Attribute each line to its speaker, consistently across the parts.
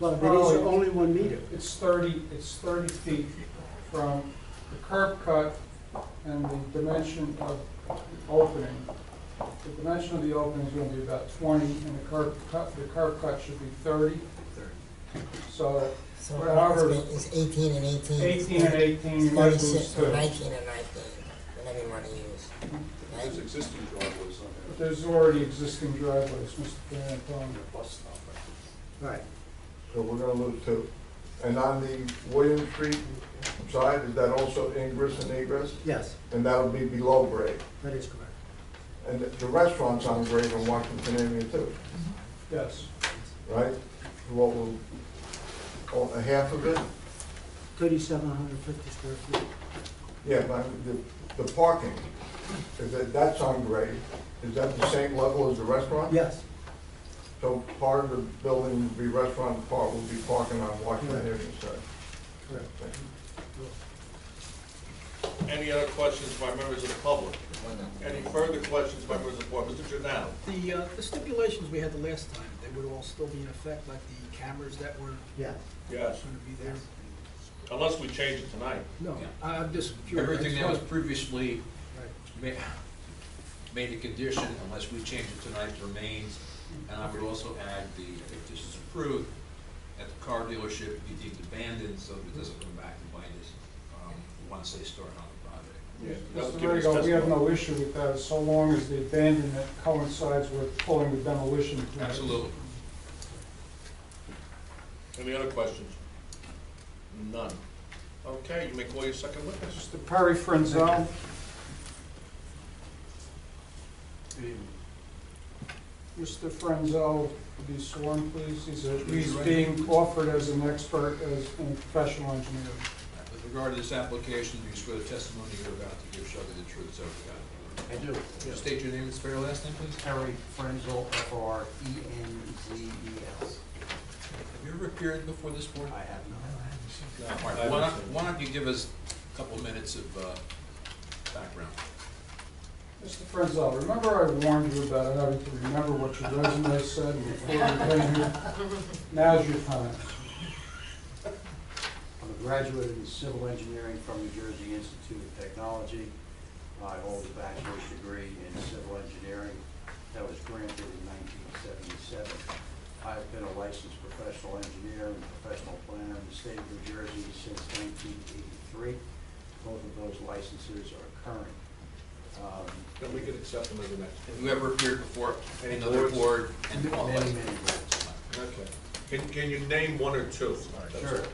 Speaker 1: Well, there is
Speaker 2: Oh, yeah.
Speaker 1: only one meter.
Speaker 2: It's thirty, it's thirty feet from the curb cut and the dimension of the opening. The dimension of the opening is gonna be about twenty, and the curb cut, the curb cut should be thirty. So
Speaker 3: So
Speaker 2: Well, ours-
Speaker 3: it's eighteen and eighteen.
Speaker 2: eighteen and eighteen, you might lose
Speaker 3: Thirty-six,
Speaker 2: two.
Speaker 3: or nineteen and nineteen, whatever you wanna use.
Speaker 4: There's
Speaker 3: Right?
Speaker 4: existing driveways on
Speaker 2: But
Speaker 4: there.
Speaker 2: there's already existing driveways, um, Mr. Van
Speaker 4: On the bus stop, I think.
Speaker 1: Right.
Speaker 5: So we're gonna lose two. And on the William Street side, is that also ingress and egress?
Speaker 1: Yes,
Speaker 5: And that'll be below grade.
Speaker 1: that is correct.
Speaker 5: And the restaurant's on grade in Washington Avenue too,
Speaker 2: Yes,
Speaker 5: right? What will, oh, a half of it?
Speaker 1: Thirty-seven hundred fifty square feet.
Speaker 5: Yeah, but the, the parking, is that, that's on grade. Is that the same level as the restaurant?
Speaker 1: Yes,
Speaker 5: So part of the building will be restaurant, part will be parking on Washington Avenue side.
Speaker 1: correct.
Speaker 5: Thank you.
Speaker 6: Any other questions by members of the public? Any further questions by members of the board? Mr. Jordan?
Speaker 7: The, uh, the stipulations we had the last time, they would all still be in effect, like the cameras that were
Speaker 1: Yes.
Speaker 6: Yes.
Speaker 7: gonna be there?
Speaker 6: Unless we change it tonight.
Speaker 7: No,
Speaker 8: Yeah.
Speaker 7: I- I'm just curious.
Speaker 8: Everything that was previously
Speaker 7: Right.
Speaker 8: ma- made a condition, unless we change it tonight, remains. And I would also add the, if this is approved, at the car dealership, be deemed abandoned, so that it doesn't come back and bite us, um, once they start on the project.
Speaker 6: That was
Speaker 2: Mr.
Speaker 6: given as
Speaker 2: Rego, we have
Speaker 6: testimony.
Speaker 2: no issue with that, so long as the abandonment coincides with pulling the demolition. plans.
Speaker 8: Absolutely.
Speaker 6: Any other questions? None. Okay, you may call your second witness.
Speaker 2: Mr. Perry Frenzel, Mr. Frenzel, to be sworn, please. He's a- He's being offered as an expert, as a professional engineer.
Speaker 8: With regard to this application, do you swear the testimony you're about to give shall be the truth, so help
Speaker 9: I do.
Speaker 8: you God? State your name and spell your last name, please.
Speaker 9: Terry Frenzel, F O R E N Z E L.
Speaker 8: Have you ever appeared before this board?
Speaker 9: I have not.
Speaker 8: All right, Uh, Why don't, why don't you give us a couple minutes of uh, background?
Speaker 2: Mr. Frenzel, remember I warned you about having to remember what your resume said before you came here? Now's your time.
Speaker 9: I'm a graduate in civil engineering from New Jersey Institute of Technology. I hold a bachelor's degree in civil engineering that was granted in 1977. I've been a licensed professional engineer and professional planner in the state of New Jersey since 1983. Both of those licenses are current. Um,
Speaker 6: Then we can accept them as an
Speaker 8: Have
Speaker 6: expert.
Speaker 8: you ever appeared before any other board and
Speaker 9: Many,
Speaker 8: qualified?
Speaker 9: many grants.
Speaker 6: Okay. Can, can you name one or two? That's
Speaker 9: Sure.
Speaker 6: all.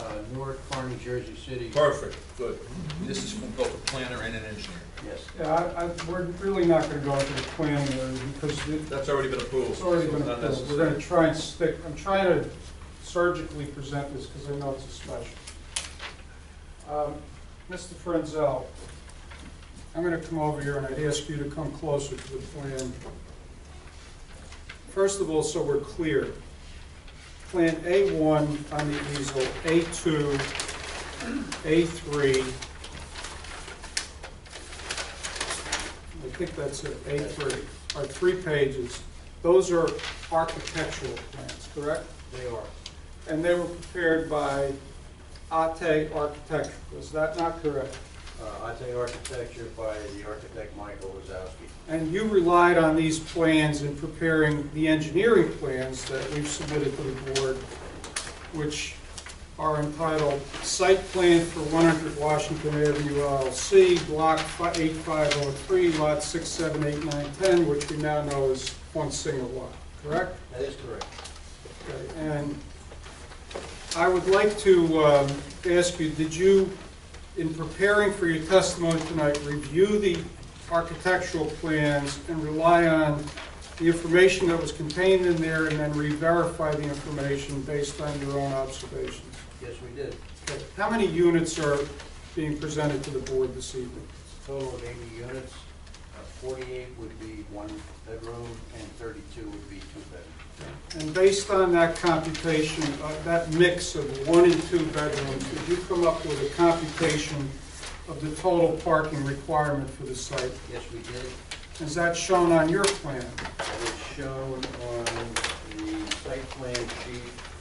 Speaker 9: Uh, Newark, Far New Jersey City.
Speaker 6: Perfect, good.
Speaker 8: This is from both a planner and an engineer.
Speaker 9: Yes.
Speaker 2: Yeah, I, I, we're really not gonna go into the plan there because it-
Speaker 6: That's already been approved.
Speaker 2: it's already
Speaker 6: so
Speaker 2: been,
Speaker 6: not
Speaker 2: approved. we're
Speaker 6: necessary.
Speaker 2: gonna try and stick, I'm trying to surgically present this because I know it's a special. Um, Mr. Frenzel, I'm gonna come over here and I'd ask you to come closer to the plan. First of all, so we're clear, Plan A1 on the easel, A2, A3. I think that's it, A3, are three pages. Those are architectural plans, correct?
Speaker 9: They are.
Speaker 2: And they were prepared by Ate Architecture, is that not correct?
Speaker 9: Uh, Ate Architecture by the architect Michael Wazowski.
Speaker 2: And you relied on these plans in preparing the engineering plans that we've submitted to the board, which are entitled Site Plan for 100 Washington Avenue LLC, Block fi- 8503, Lot 6, 7, 8, 9, 10, which we now know is one single lot, correct?
Speaker 9: That is correct.
Speaker 2: Okay, And I would like to um, ask you, did you, in preparing for your testimony tonight, review the architectural plans and rely on the information that was contained in there and then re-verify the information based on your own observations?
Speaker 9: Yes, we did.
Speaker 2: Okay, How many units are being presented to the board this evening?
Speaker 9: Total of 80 units, Uh, 48 would be one bedroom and 32 would be two bedroom.
Speaker 2: And based on that computation, uh, that mix of one and two bedrooms, did you come up with a computation of the total parking requirement for the site?
Speaker 9: Yes, we did.
Speaker 2: Is that shown on your plan?
Speaker 9: That is shown on the site plan sheet